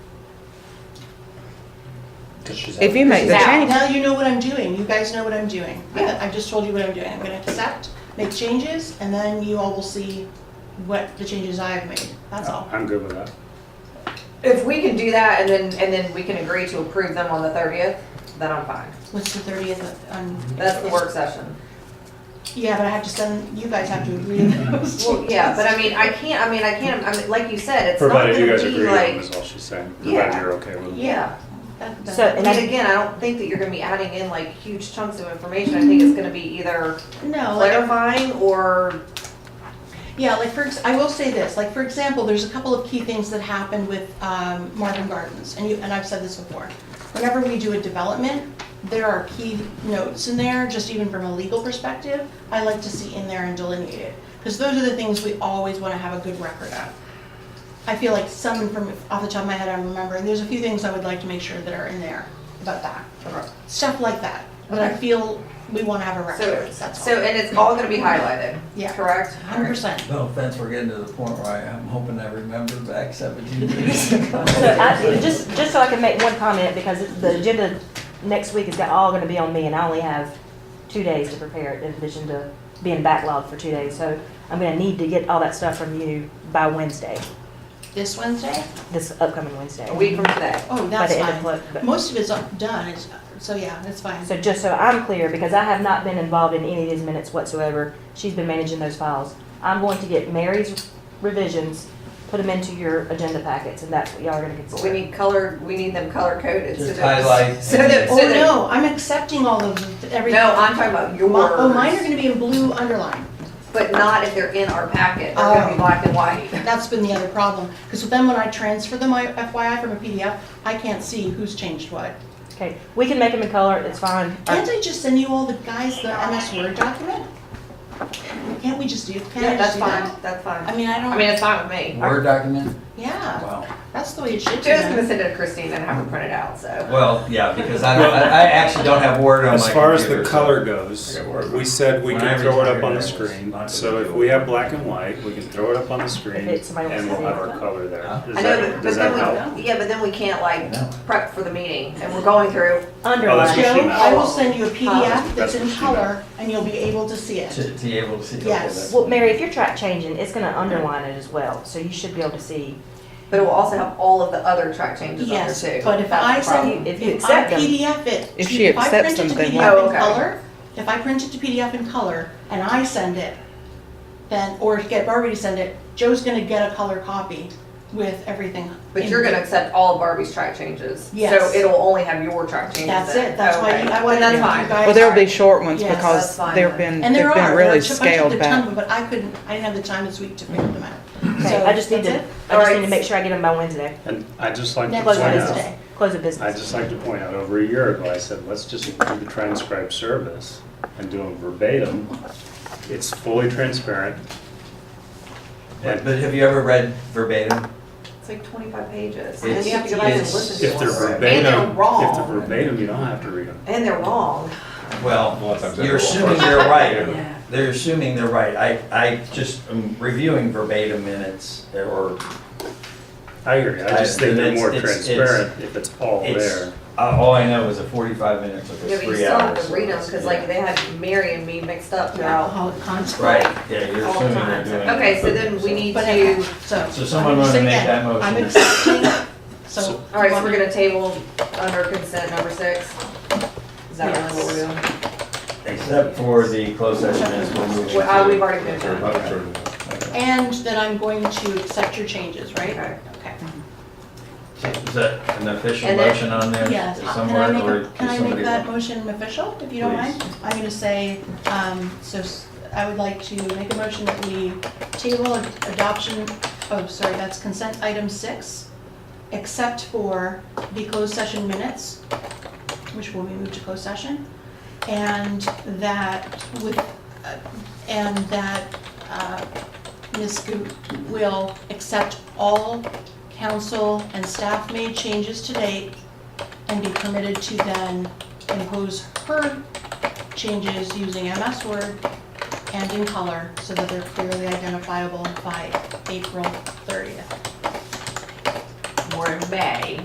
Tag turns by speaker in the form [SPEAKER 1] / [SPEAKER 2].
[SPEAKER 1] If you make the
[SPEAKER 2] Now-
[SPEAKER 1] change,
[SPEAKER 2] Now you know what I'm doing, you guys know what I'm doing. I- I've just told you what I'm doing. I'm gonna accept, make changes, and then you all will see what the changes I've made, that's
[SPEAKER 3] Oh.
[SPEAKER 2] all.
[SPEAKER 4] Oh, I'm good with that.
[SPEAKER 3] If we can do that and then, and then we can agree to approve them on the thirtieth, then I'm fine.
[SPEAKER 2] What's the thirtieth, um,
[SPEAKER 3] That's the work session.
[SPEAKER 2] yeah, but I have to send, you guys have to agree to those
[SPEAKER 3] Well, yeah, but I mean, I can't, I mean, I can't, I mean, like you said, it's not gonna
[SPEAKER 4] Provided
[SPEAKER 3] be
[SPEAKER 4] you guys agree with them
[SPEAKER 3] like,
[SPEAKER 4] is all she's saying,
[SPEAKER 3] Yeah.
[SPEAKER 4] provided you're okay with them.
[SPEAKER 3] yeah.
[SPEAKER 2] That- that-
[SPEAKER 1] So,
[SPEAKER 3] And
[SPEAKER 1] and I-
[SPEAKER 3] again, I don't think that you're gonna be adding in like huge chunks of information. I think it's gonna be either
[SPEAKER 2] No, like,
[SPEAKER 3] clarifying or,
[SPEAKER 2] yeah, like for, ex- I will say this, like, for example, there's a couple of key things that happened with um, Marvin Gardens, and you, and I've said this before. Whenever we do a development, there are key notes in there, just even from a legal perspective, I like to see in there and delineated. Because those are the things we always want to have a good record of. I feel like some from, off the top of my head, I'm remembering, there's a few things I would like to make sure that are in there about that. Stuff like that, that I
[SPEAKER 3] Okay.
[SPEAKER 2] feel we want to have a
[SPEAKER 3] so,
[SPEAKER 2] record, that's all.
[SPEAKER 3] so, and it's all gonna be highlighted,
[SPEAKER 2] Yeah.
[SPEAKER 3] correct?
[SPEAKER 2] Hundred percent.
[SPEAKER 5] No offense, we're getting to the point where I am hoping I remember back seventeen years ago.
[SPEAKER 1] so I, just, just so I can make one comment, because the agenda next week is got- all gonna be on me, and I only have two days to prepare it, in addition to being backlogged for two days, so I'm gonna need to get all that stuff from you by Wednesday,
[SPEAKER 2] This Wednesday?
[SPEAKER 1] this upcoming Wednesday.
[SPEAKER 3] A week from today.
[SPEAKER 2] Oh,
[SPEAKER 1] By
[SPEAKER 2] that's
[SPEAKER 1] the end of
[SPEAKER 2] fine.
[SPEAKER 1] pl- but-
[SPEAKER 2] Most of it's done, it's, so yeah, that's fine.
[SPEAKER 1] So just so I'm clear, because I have not been involved in any of these minutes whatsoever, she's been managing those files. I'm going to get Mary's revisions, put them into your agenda packets, and that's what y'all are gonna
[SPEAKER 3] But we
[SPEAKER 1] consider.
[SPEAKER 3] need color, we need them color coded. so
[SPEAKER 5] Just
[SPEAKER 3] that-
[SPEAKER 5] highlight
[SPEAKER 3] So that, so
[SPEAKER 2] Oh,
[SPEAKER 3] that.
[SPEAKER 2] no, I'm accepting all of the- everything.
[SPEAKER 3] No, I'm talking about yours.
[SPEAKER 2] Mi- Oh, mine are gonna be in blue underline.
[SPEAKER 3] But not if they're in our packet, they're gonna be
[SPEAKER 2] Oh.
[SPEAKER 3] black and white.
[SPEAKER 2] That's been the other problem, because then when I transfer them, I- FYI, from a PDF, I can't see who's changed what.
[SPEAKER 1] Okay, we can make them in color, it's fine.
[SPEAKER 3] Uh,
[SPEAKER 2] Can't I just send you all the guys the MS Word document? Can't we just do, can
[SPEAKER 3] Yeah,
[SPEAKER 2] I just
[SPEAKER 3] that's
[SPEAKER 2] do
[SPEAKER 3] fine,
[SPEAKER 2] that?
[SPEAKER 3] that's
[SPEAKER 2] I
[SPEAKER 3] fine.
[SPEAKER 2] mean, I
[SPEAKER 3] I mean,
[SPEAKER 2] don't,
[SPEAKER 3] it's fine with me.
[SPEAKER 5] Word document?
[SPEAKER 2] yeah,
[SPEAKER 5] Wow.
[SPEAKER 2] that's the way it should be.
[SPEAKER 3] She was gonna
[SPEAKER 2] done.
[SPEAKER 3] send it to Christine and have her print it out, so.
[SPEAKER 5] Well, yeah, because I don't, I, I actually don't have Word on my
[SPEAKER 4] As far as the
[SPEAKER 5] computer, so-
[SPEAKER 4] color goes,
[SPEAKER 5] I got word.
[SPEAKER 4] we said we
[SPEAKER 5] When
[SPEAKER 4] can
[SPEAKER 5] I
[SPEAKER 4] throw it up on
[SPEAKER 5] retire,
[SPEAKER 4] the
[SPEAKER 5] I was
[SPEAKER 4] screen,
[SPEAKER 5] not
[SPEAKER 4] so
[SPEAKER 5] gonna
[SPEAKER 4] if
[SPEAKER 5] do
[SPEAKER 4] we
[SPEAKER 5] it.
[SPEAKER 4] have black and white, we can throw it up on the screen
[SPEAKER 1] it's somebody
[SPEAKER 4] and we'll
[SPEAKER 1] else's
[SPEAKER 4] have our
[SPEAKER 1] idea.
[SPEAKER 4] color there.
[SPEAKER 5] Yeah.
[SPEAKER 4] Does
[SPEAKER 3] I know,
[SPEAKER 4] that,
[SPEAKER 3] but,
[SPEAKER 4] does
[SPEAKER 3] but
[SPEAKER 4] that
[SPEAKER 3] then
[SPEAKER 4] help?
[SPEAKER 3] we, yeah, but then we can't like
[SPEAKER 5] No.
[SPEAKER 3] prep for the meeting and we're going through,
[SPEAKER 1] Underline.
[SPEAKER 4] what she
[SPEAKER 2] Joe,
[SPEAKER 4] meant.
[SPEAKER 2] I will send you a
[SPEAKER 4] Huh?
[SPEAKER 2] PDF that's in
[SPEAKER 4] That's what she meant.
[SPEAKER 2] color, and you'll be able to see it.
[SPEAKER 5] To, to be able to see. okay,
[SPEAKER 2] Yes.
[SPEAKER 5] that's-
[SPEAKER 1] Well, Mary, if you're track changing, it's gonna underline it as well, so you should be able to see.
[SPEAKER 3] but it will also have all of the other track changes on there
[SPEAKER 2] Yes,
[SPEAKER 3] too.
[SPEAKER 2] but if
[SPEAKER 3] That's the
[SPEAKER 2] I
[SPEAKER 3] problem.
[SPEAKER 2] send,
[SPEAKER 1] If you
[SPEAKER 2] if I
[SPEAKER 1] accept them.
[SPEAKER 2] PDF it.
[SPEAKER 6] If
[SPEAKER 2] to-
[SPEAKER 6] she
[SPEAKER 2] I
[SPEAKER 6] accepts
[SPEAKER 2] print it to
[SPEAKER 6] them, then
[SPEAKER 2] PDF
[SPEAKER 3] yeah.
[SPEAKER 2] in
[SPEAKER 3] Okay.
[SPEAKER 2] color, If I print it to PDF in color and I send it, then, or get Barbie to send it, Joe's gonna get a color copy with everything.
[SPEAKER 3] But
[SPEAKER 2] in
[SPEAKER 3] you're
[SPEAKER 2] it.
[SPEAKER 3] gonna accept all of Barbie's track changes.
[SPEAKER 2] Yes.
[SPEAKER 3] So it'll only have your track changes
[SPEAKER 2] That's
[SPEAKER 3] in.
[SPEAKER 2] it, that's why
[SPEAKER 3] Okay.
[SPEAKER 2] you- I wanted
[SPEAKER 3] Then
[SPEAKER 2] you
[SPEAKER 3] that's fine.
[SPEAKER 2] guys.
[SPEAKER 6] Well, there'll be short ones
[SPEAKER 2] Yes,
[SPEAKER 3] that's
[SPEAKER 6] because
[SPEAKER 3] fine
[SPEAKER 6] they've
[SPEAKER 3] then.
[SPEAKER 6] been,
[SPEAKER 2] And there
[SPEAKER 6] they've
[SPEAKER 2] are,
[SPEAKER 6] been
[SPEAKER 2] there are a
[SPEAKER 6] really
[SPEAKER 2] bunch of
[SPEAKER 6] scaled
[SPEAKER 2] the
[SPEAKER 6] back.
[SPEAKER 2] ton, but I couldn't, I didn't have the time this week to figure them out.
[SPEAKER 1] Okay,
[SPEAKER 2] So,
[SPEAKER 1] I just need
[SPEAKER 2] that's
[SPEAKER 1] to,
[SPEAKER 2] it.
[SPEAKER 1] I just need
[SPEAKER 3] Alright.
[SPEAKER 1] to make sure I get them by Wednesday.
[SPEAKER 4] And I'd just like to
[SPEAKER 2] Next
[SPEAKER 1] Close
[SPEAKER 4] point
[SPEAKER 1] of
[SPEAKER 2] Wednesday.
[SPEAKER 4] out,
[SPEAKER 1] business, close of
[SPEAKER 4] I'd
[SPEAKER 1] business.
[SPEAKER 4] just like to point out, over a year ago, I said, let's just do the transcribe service and do them verbatim. It's fully transparent.
[SPEAKER 5] But but have you ever read verbatim?
[SPEAKER 3] It's like twenty-five pages. And then
[SPEAKER 5] It's-
[SPEAKER 3] you have to go back and
[SPEAKER 5] it's-
[SPEAKER 3] listen to
[SPEAKER 4] If
[SPEAKER 3] them.
[SPEAKER 4] they're
[SPEAKER 3] And
[SPEAKER 4] verbatim,
[SPEAKER 3] they're
[SPEAKER 4] if they're
[SPEAKER 3] wrong.
[SPEAKER 4] verbatim, you don't have to read them.
[SPEAKER 3] And they're wrong.
[SPEAKER 5] Well,
[SPEAKER 7] Sometimes
[SPEAKER 5] you're
[SPEAKER 7] that's a
[SPEAKER 5] assuming
[SPEAKER 7] little
[SPEAKER 5] they're
[SPEAKER 3] Yeah.
[SPEAKER 5] right. They're assuming they're right. I, I just am reviewing verbatim minutes or
[SPEAKER 4] I hear you, I just
[SPEAKER 5] I-
[SPEAKER 4] think they're
[SPEAKER 5] it's-
[SPEAKER 4] more
[SPEAKER 5] it's- it's-
[SPEAKER 4] transparent if it's all
[SPEAKER 5] it's,
[SPEAKER 4] there.
[SPEAKER 5] uh, all I know is a forty-five minutes took
[SPEAKER 3] Yeah,
[SPEAKER 5] us
[SPEAKER 3] but you
[SPEAKER 5] three hours.
[SPEAKER 3] still have to
[SPEAKER 5] so
[SPEAKER 3] read them,
[SPEAKER 5] it's-
[SPEAKER 3] cause
[SPEAKER 5] yeah.
[SPEAKER 3] like they had Mary and me mixed up throughout
[SPEAKER 2] Alcoholic content.
[SPEAKER 5] Right, yeah, you're
[SPEAKER 3] all the
[SPEAKER 5] assuming they're
[SPEAKER 3] time.
[SPEAKER 5] doing.
[SPEAKER 3] Okay,
[SPEAKER 5] it
[SPEAKER 3] so
[SPEAKER 5] verbatim,
[SPEAKER 3] then we
[SPEAKER 5] so-
[SPEAKER 3] need
[SPEAKER 2] But anyway,
[SPEAKER 3] to,
[SPEAKER 2] so.
[SPEAKER 5] So someone wanna
[SPEAKER 2] Say
[SPEAKER 5] make
[SPEAKER 2] again,
[SPEAKER 5] that motion.
[SPEAKER 2] I'm accepting, so.
[SPEAKER 3] alright, so we're gonna table under consent number six. Is that really what we're doing?
[SPEAKER 5] Except for the closed session minutes, we're moving.
[SPEAKER 3] Well, uh,
[SPEAKER 5] to-
[SPEAKER 3] we've already moved on.
[SPEAKER 7] Sure.
[SPEAKER 2] And then I'm going to accept your changes, right?
[SPEAKER 3] Okay.
[SPEAKER 2] Okay.
[SPEAKER 5] Is that an official
[SPEAKER 3] And then-
[SPEAKER 5] motion on there?
[SPEAKER 2] Yes, can
[SPEAKER 5] somewhere,
[SPEAKER 2] I make,
[SPEAKER 5] or
[SPEAKER 2] a- can I
[SPEAKER 5] somebody-
[SPEAKER 2] make that motion official, if you don't
[SPEAKER 5] Please.
[SPEAKER 2] mind? I'm gonna say, um, so s- I would like to make a motion that we table ad- adoption, oh, sorry, that's consent item six, except for the closed session minutes, which will be moved to closed session, and that with, uh, and that, uh, Ms. Scoot will accept all council and staff made changes to date and be permitted to then impose her changes using MS Word and in color so that they're clearly identifiable by April 30th.
[SPEAKER 3] We're in May.